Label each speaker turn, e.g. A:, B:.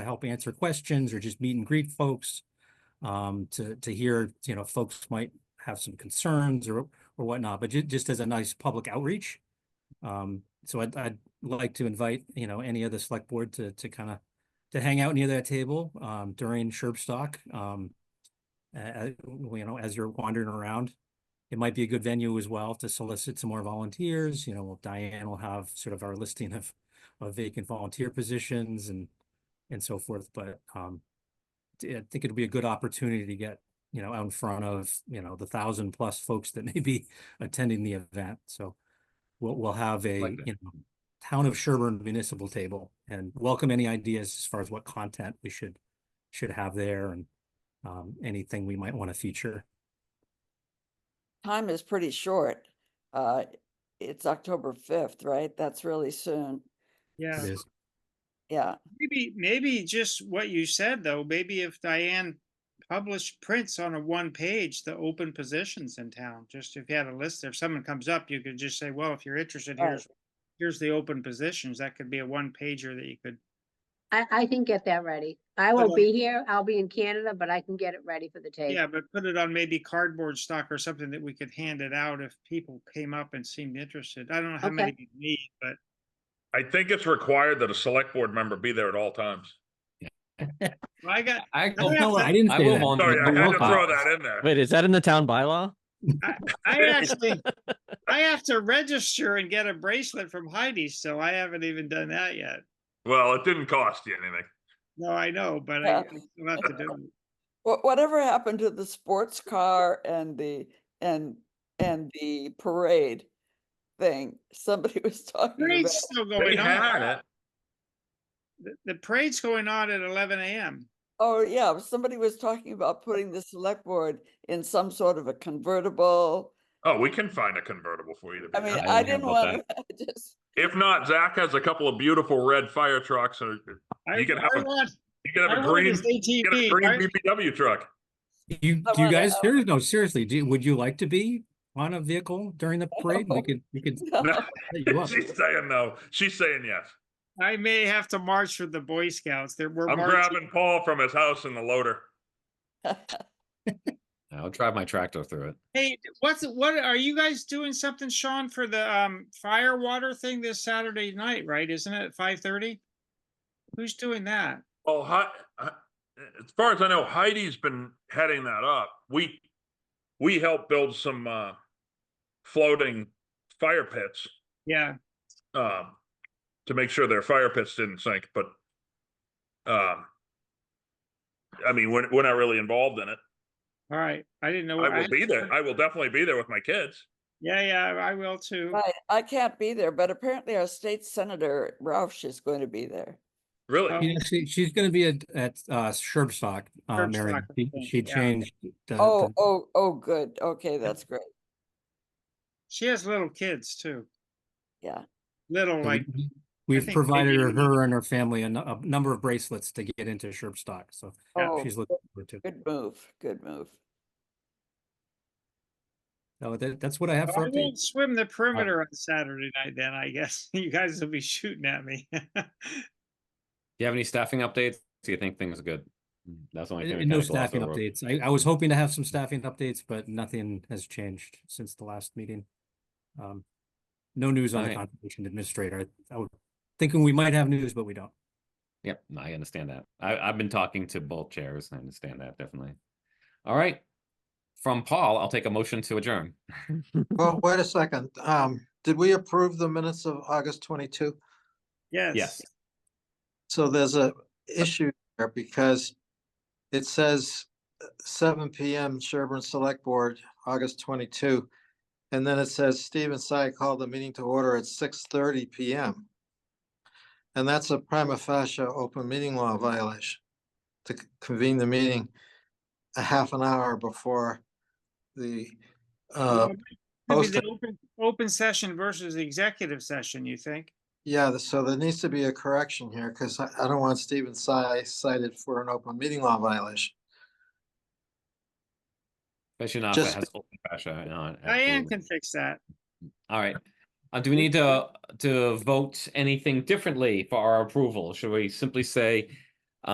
A: help answer questions or just meet and greet folks. Um, to, to hear, you know, folks might have some concerns or, or whatnot, but ju- just as a nice public outreach. Um, so I'd, I'd like to invite, you know, any of the select board to, to kind of, to hang out near that table, um, during Sherbstock, um. Uh, you know, as you're wandering around, it might be a good venue as well to solicit some more volunteers, you know, Diane will have sort of our listing of, of vacant volunteer positions and and so forth, but um. t- I think it'll be a good opportunity to get, you know, out in front of, you know, the thousand plus folks that may be attending the event, so. We'll we'll have a,
B: Like that.
A: you know, town of Sherburne municipal table and welcome any ideas as far as what content we should. Should have there and um anything we might want to feature.
C: time is pretty short. Uh, it's October fifth, right? That's really soon.
A: It
D: Yeah,
A: is-
C: Yeah,
D: maybe, maybe just what you said, though, maybe if Diane published prints on a one page, the open positions in town, just if you had a list, if someone comes up, you could just say, well, if you're interested,
C: Right.
D: here's, here's the open positions. That could be a one pager that you could,
E: I, I can get that ready. I won't be here. I'll be in Canada, but I can get it ready for the tape.
D: yeah, but put it on maybe cardboard stock or something that we could hand it out if people came up and seemed interested. I don't know how
E: Okay.
D: many you need, but
B: I think it's required that a select board member be there at all times.
D: well, I got,
F: I
D: Oh,
A: Oh,
D: yeah,
A: no,
D: but
A: I didn't
F: I
A: say
F: will
A: that.
F: volunteer.
B: Sorry, I
F: I
B: had
F: will
B: to throw that in there.
G: Wait, is that in the town bylaw?
D: I actually, I have to register and get a bracelet from Heidi, so I haven't even done that yet.
B: Well, it didn't cost you anything.
D: No, I know, but I,
C: Yeah.
D: I still have to do it.
C: Wha- whatever happened to the sports car and the, and, and the parade thing? Somebody was talking about.
D: Parade's still
B: They
D: going on.
B: had it.
D: The- The parade's going on at eleven AM.
C: Oh, yeah, somebody was talking about putting the select board in some sort of a convertible.
B: Oh, we can find a convertible for you to be.
C: I mean,
B: in.
F: didn't
C: I
F: hear
C: didn't
F: about
C: want to, just,
B: If not, Zach has a couple of beautiful red fire trucks or
D: I
B: You can have
D: I
B: a-
D: want-
B: you can
D: I
B: have a
D: want
B: green,
D: this
B: you can have a
D: ATV.
B: green
D: I-
B: BBW truck.
A: Do you, do you
C: Someone,
A: guys,
C: uh,
A: serious- no, seriously, do, you- would you like to be on a vehicle during the parade? We
C: No.
A: could, we could
C: no,
B: No,
A: set you up.
B: She's saying no. She's saying yes.
D: I may have to march with the Boy Scouts. There were
B: I'm
D: marching.
B: grabbing Paul from his house in the loader.
F: I'll drive my tractor through it.
D: Hey, what's, what, are you guys doing something, Sean, for the, um, fire water thing this Saturday night, right? Isn't it at five thirty? Who's doing that?
B: Oh, hi, hi- as far as I know, Heidi's been heading that up. We, we helped build some, uh, floating fire pits.
D: Yeah,
B: um, to make sure their fire pits didn't sink, but um, I mean, we're, we're not really involved in it.
D: all right. I didn't know.
B: I
D: Oh, I-
B: will be there. I will definitely be there with my kids.
D: Yeah, yeah, I will too.
C: right, I can't be there, but apparently our state senator Roush is going to be there.
D: Oh.
B: Really?
A: You know, she, she's gonna be at, at, uh, Sherbstock, uh, Mary,
D: Sherbstock, I
A: she,
D: think,
A: she
D: yeah.
A: changed the,
C: Oh,
A: the-
C: oh, oh, good. Okay, that's great.
D: She has little kids too.
C: Yeah.
D: Little
A: so
D: like,
A: we- We've
D: think
A: provided her,
D: maybe-
A: her and her family a, nu- a number of bracelets to get into Sherbstock, so
D: Yeah,
C: Oh,
A: she's looking forward to. it.
C: good move, good move.
A: So that, that's what I have for
D: I
A: updates.
D: won't swim the perimeter on Saturday night then, I guess. You guys will be shooting at me.
F: Do you have any staffing updates? Do you think things are good? Mm, That's the only thing. we
A: And no
F: kinda gloss
A: staffing
F: over.
A: updates. I, I was hoping to have some staffing updates, but nothing has changed since the last meeting. Um, no news on the
F: Alright.
A: conservation administrator. I was thinking we might have news, but we don't.
F: Yep, no, I understand that. I, I've been talking to both chairs. I understand that definitely. All right. From Paul, I'll take a motion to adjourn.
H: Well, wait a second. Um, did we approve the minutes of August twenty-two?
F: Yes.
D: Yes,
H: So there's a issue there because it says uh, seven PM Sherburne Select Board, August twenty-two. And then it says Stephen Si called the meeting to order at six thirty PM. And that's a prima facie open meeting law violation to c- convene the meeting a half an hour before the uh,
D: Maybe the
H: posted.
D: open- Open session versus the executive session, you think?
H: Yeah, th- so there needs to be a correction here because I, I don't want Stephen Si cited for an open meeting law violation.
F: Especially not if it
H: Just-
F: has open pressure on. it,
D: Diane
F: absolutely.
D: can fix that.
F: All right. Uh, do we need to to vote anything differently for our approval? Should we simply say